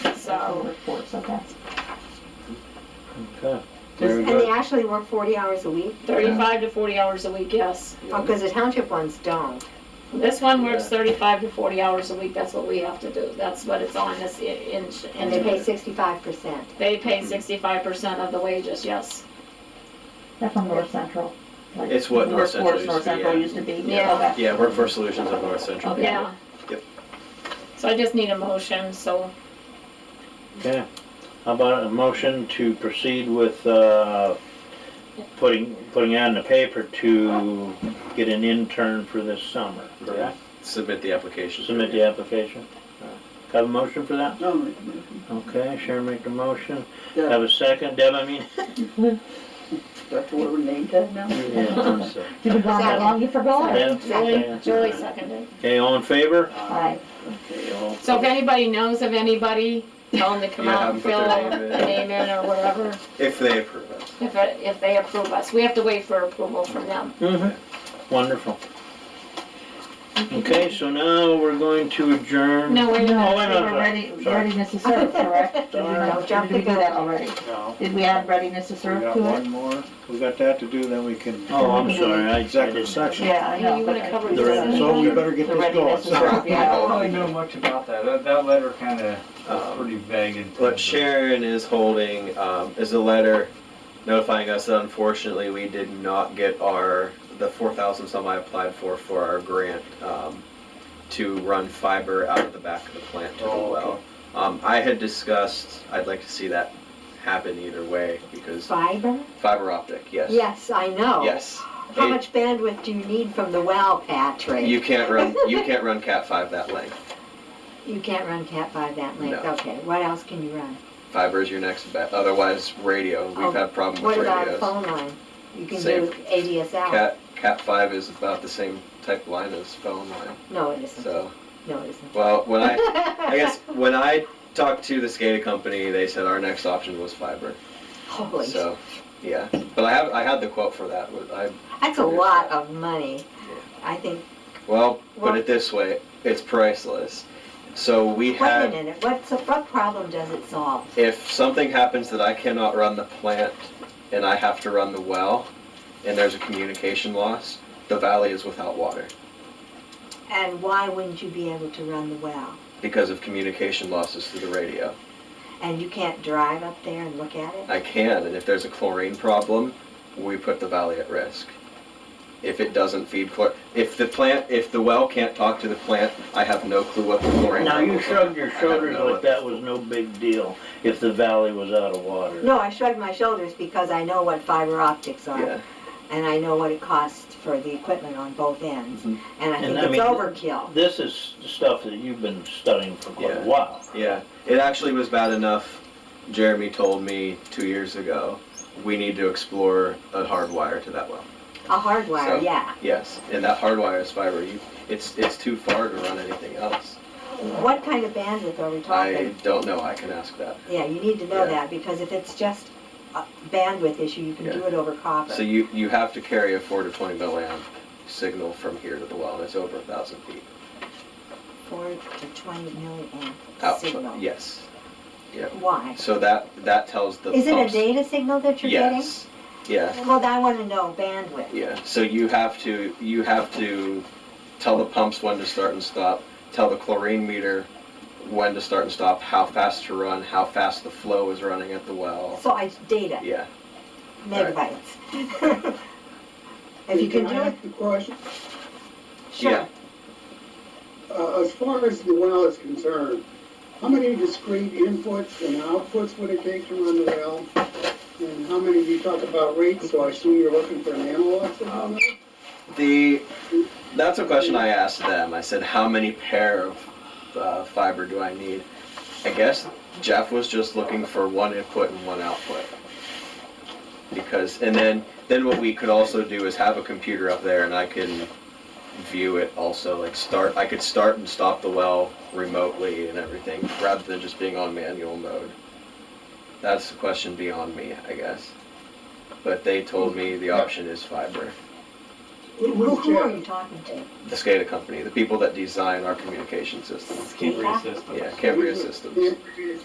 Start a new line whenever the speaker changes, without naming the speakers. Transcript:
hour work for, so that's.
Okay.
Very
And they
good.
actually work forty hours a week,
Thirty-five to forty hours a week, yes.
Oh, 'cause the township ones don't.
This one works
Yeah.
thirty-five to forty hours a week, that's what we have to do, that's what it's on this i- in,
And they
in,
Mm-hmm.
pay sixty-five percent.
they pay sixty-five percent of the wages, yes.
They're from North Central. like
It's what North Central
Workforce
used
North
to be,
Central
yeah.
used to be.
Yeah.
Okay.
Yeah, Workforce Solutions of North Central.
Okay.
Yeah.
Yep.
So I just need a motion, so
Okay. How about a motion to proceed with, uh, putting, putting out in the paper to get an intern for this summer, correct?
Submit the application.
Submit the application. Have a motion for that?
I'll make a motion.
Okay, Sharon make the motion.
Yeah,
Have a second, Deb, I mean?
that's what we named that now.
Yeah, I'm sorry.
You've been gone that
Second.
long, you forgot.
Deb?
Julie,
Okay.
Julie seconded.
Okay, all in favor?
Aye.
Okay, all.
So if anybody knows of anybody, tell them to come
Yeah,
out
have
and
them
fill
put their
out
name in.
the name in or whatever,
If they approve it.
if, it- if they approve us. We have to wait for approval from them.
Mm-hmm. Wonderful. Okay, so now we're going to adjourn.
No, wait a
No,
Oh,
we
wait a
minute.
minute,
were ready,
sorry.
readiness to serve, correct? Did we
Sorry.
not- Did we do that already?
No,
Did we add readiness to
we
serve
got
to it?
one more, we got that to do, then we can.
Oh, I'm sorry, I I
Executive
just.
section.
Yeah, I know.
You wanna
but-
cover
The readiness to
So we
serve.
better
The
get this going.
readiness to serve,
so.
yeah.
I don't really know much about that. That, that letter kind of was pretty vague. in
What
terms of-
Sharon is holding um, is a letter notifying us that unfortunately we did not get our, the 4,000 some I applied for, for our grant um, to run fiber out of the back of the plant to the
Oh, okay.
well. Um, I had discussed, I'd like to see that happen either way because
Fiber?
fiber optic, yes.
Yes, I know.
Yes.
How
It-
much bandwidth do you need from the well, Patrick?
You can't run, you can't run Cat 5 that length.
You can't run cat five that length,
No.
okay, what else can you run?
Fiber is your next bet. Otherwise, radio. We've
Oh,
had problems
What
with
about a
radios.
phone line? You can
Same.
do ADSL.
Cat Cat five is about the same type line as phone line.
No, it isn't,
So
no, it isn't.
well, when I I guess when I talked to the SCADA company, they said our next option was fiber.
Holy,
So yeah, but I have I had the quote for that. I
that's a lot of money. I think,
well
Well-
put it this way, it's priceless. So we
wait a
have
minute, what's, what problem does it solve?
if something happens that I cannot run the plant and I have to run the well, and there's a communication loss, the valley is without water.
And why wouldn't you be able to run the well?
because of communication losses through the radio.
And you can't drive up there and look at it?
I can, and if there's a chlorine problem, we put the valley at risk. If it doesn't feed chlor, if the plant, if the well can't talk to the plant, I have no clue what the chlorine.
Now, you
levels are.
shrugged your
I have
shoulders
no-
like that was no big deal if the valley was out of water.
No, I shrugged my shoulders because I know what fiber optics
Yeah,
are, and I know what it costs for the equipment on both ends,
Mhm.
and I
And
think
I
it's
mean-
overkill.
This is stuff that you've been studying for quite a
Yeah.
while.
yeah. It actually was bad enough. Jeremy told me two years ago, we need to explore a hard wire to that well.
A hard wire,
So-
yeah.
Yes, and that hard wire is fiber. You, it's, it's too far to run anything else.
What kind of bandwidth are we
I
talking?
don't know. I can ask that.
Yeah, you need to know
Yeah.
that, because if it's just a bandwidth issue, you can do
Yeah.
it over
So
copper.
you, you have to carry a four to twenty milliamp signal from here to the well, and it's over a thousand feet.
Four to twenty milliamp
Out,
signal.
yes. Yeah.
Why?
Oh, So that, that tells the.
Is it a
pumps-
data signal that you're getting?
Yes, yeah,
Well, I want to know bandwidth.
yeah. So you have to, you have to tell the pumps when to start and stop, tell the chlorine meter when to start and stop, how fast to run, how fast the flow is running at the well.
So I, data,
Yeah,
megabytes. If you can do
I
it,
ask a question?
sure.
Yeah.
Uh, as far as the well is concerned, how many discrete inputs and outputs would it take to run the well? And how many, you talk about rates, so I assume you're looking for an analog to how many?
The, that's a question I asked them. I said, how many pair of uh, fiber do I need? I guess Jeff was just looking for one input and one output. Because, and then, then what we could also do is have a computer up there and I can view it also, like start, I could start and stop the well remotely and everything, rather than just being on manual mode. That's the question beyond me, I guess. But they told me the option is fiber.
Who, who are you talking to?
the SCADA company, the people that design our communication systems.
Cambria system.
Yeah, Cambria Systems.